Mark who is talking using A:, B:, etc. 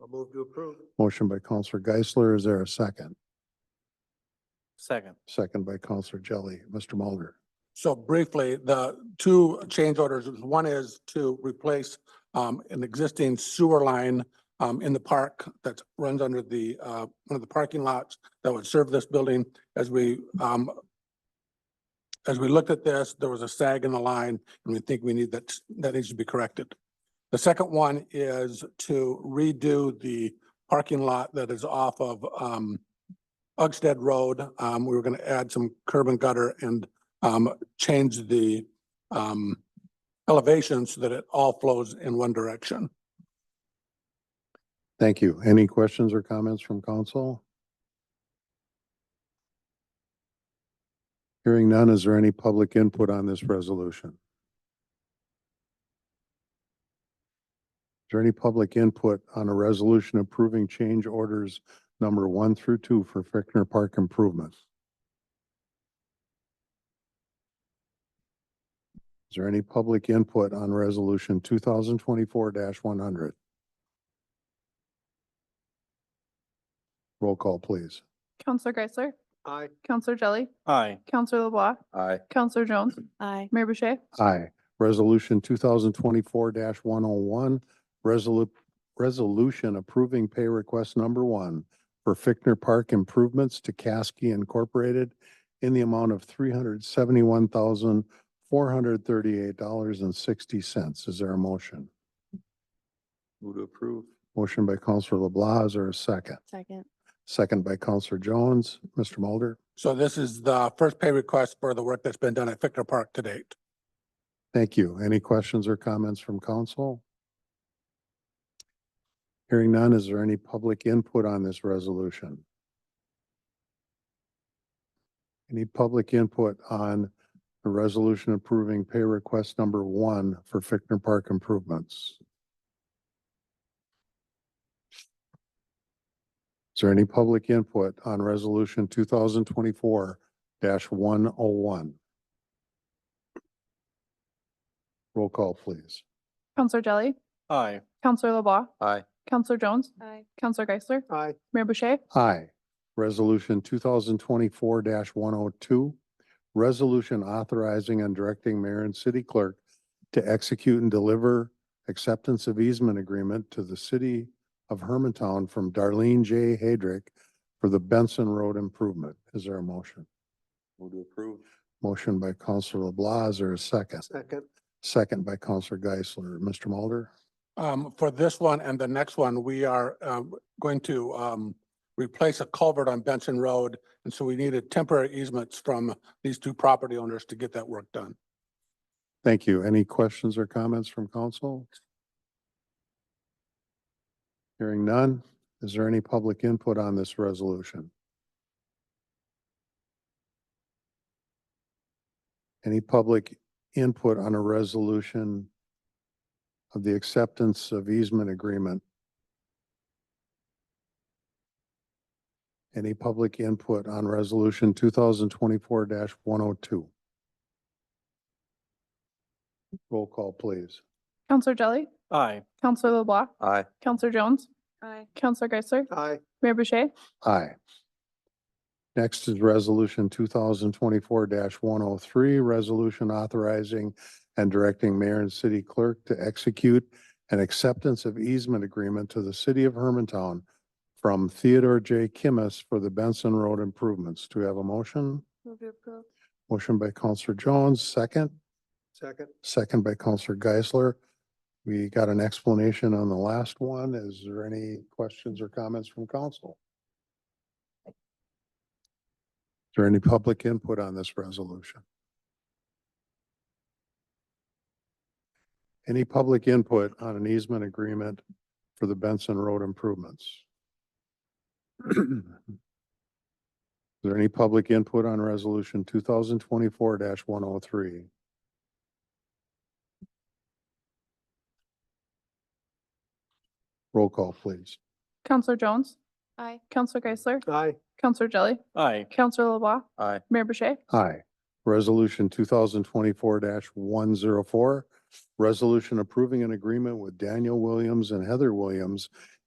A: I'll move to approve.
B: Motion by Counselor Geisler. Is there a second?
C: Second.
B: Second by Counselor Jelly. Mr. Mulder.
D: So briefly, the two change orders, one is to replace um an existing sewer line um in the park that runs under the uh one of the parking lots that would serve this building as we um as we looked at this, there was a sag in the line and we think we need that, that needs to be corrected. The second one is to redo the parking lot that is off of um Uggstead Road. Um, we were gonna add some curb and gutter and um, change the um, elevation so that it all flows in one direction.
B: Thank you. Any questions or comments from council? Hearing none, is there any public input on this resolution? Is there any public input on a resolution approving change orders number one through two for Fickner Park improvements? Is there any public input on resolution two thousand twenty-four one hundred? Roll call, please.
E: Counselor Geisler,
A: Aye.
E: Counselor Jelly,
C: Aye.
E: Counselor LeBlanc,
C: Aye.
E: Counselor Jones,
F: Aye.
E: Mayor Boucher.
B: Aye. Resolution two thousand twenty-four one oh one, resolu- resolution approving pay request number one for Fickner Park improvements to Caskey Incorporated in the amount of three hundred seventy-one thousand, four hundred thirty-eight dollars and sixty cents. Is there a motion?
C: Move to approve.
B: Motion by Counselor LeBlanc, is there a second?
F: Second.
B: Second by Counselor Jones. Mr. Mulder?
D: So this is the first pay request for the work that's been done at Fickner Park to date.
B: Thank you. Any questions or comments from council? Hearing none, is there any public input on this resolution? Any public input on the resolution approving pay request number one for Fickner Park improvements? Is there any public input on resolution two thousand twenty-four one oh one? Roll call, please.
E: Counselor Jelly,
C: Aye.
E: Counselor LeBlanc,
C: Aye.
E: Counselor Jones,
F: Aye.
E: Counselor Geisler,
A: Aye.
E: Mayor Boucher,
B: Aye. Resolution two thousand twenty-four one oh two. Resolution authorizing and directing mayor and city clerk to execute and deliver acceptance of easement agreement to the city of Hermantown from Darlene J. Hadrick for the Benson Road improvement. Is there a motion?
C: Move to approve.
B: Motion by Counselor LeBlanc, is there a second?
A: Second.
B: Second by Counselor Geisler. Mr. Mulder?
D: Um, for this one and the next one, we are um going to um replace a culvert on Benson Road. And so we needed temporary easements from these two property owners to get that work done.
B: Thank you. Any questions or comments from council? Hearing none. Is there any public input on this resolution? Any public input on a resolution of the acceptance of easement agreement? Any public input on resolution two thousand twenty-four one oh two? Roll call, please.
E: Counselor Jelly,
C: Aye.
E: Counselor LeBlanc,
C: Aye.
E: Counselor Jones,
F: Aye.
E: Counselor Geisler,
A: Aye.
E: Mayor Boucher,
B: Aye. Next is resolution two thousand twenty-four one oh three, resolution authorizing and directing mayor and city clerk to execute an acceptance of easement agreement to the city of Hermantown from Theodore J. Kimmis for the Benson Road improvements. Do we have a motion?
F: Move to approve.
B: Motion by Counselor Jones, second,
A: Second.
B: second by Counselor Geisler. We got an explanation on the last one. Is there any questions or comments from council? Is there any public input on this resolution? Any public input on an easement agreement for the Benson Road improvements? Is there any public input on resolution two thousand twenty-four one oh three? Roll call, please.
E: Counselor Jones,
F: Aye.
E: Counselor Geisler,
A: Aye.
E: Counselor Jelly,
C: Aye.
E: Counselor LeBlanc,
C: Aye.
E: Mayor Boucher,
B: Aye. Resolution two thousand twenty-four one zero four. Resolution approving an agreement with Daniel Williams and Heather Williams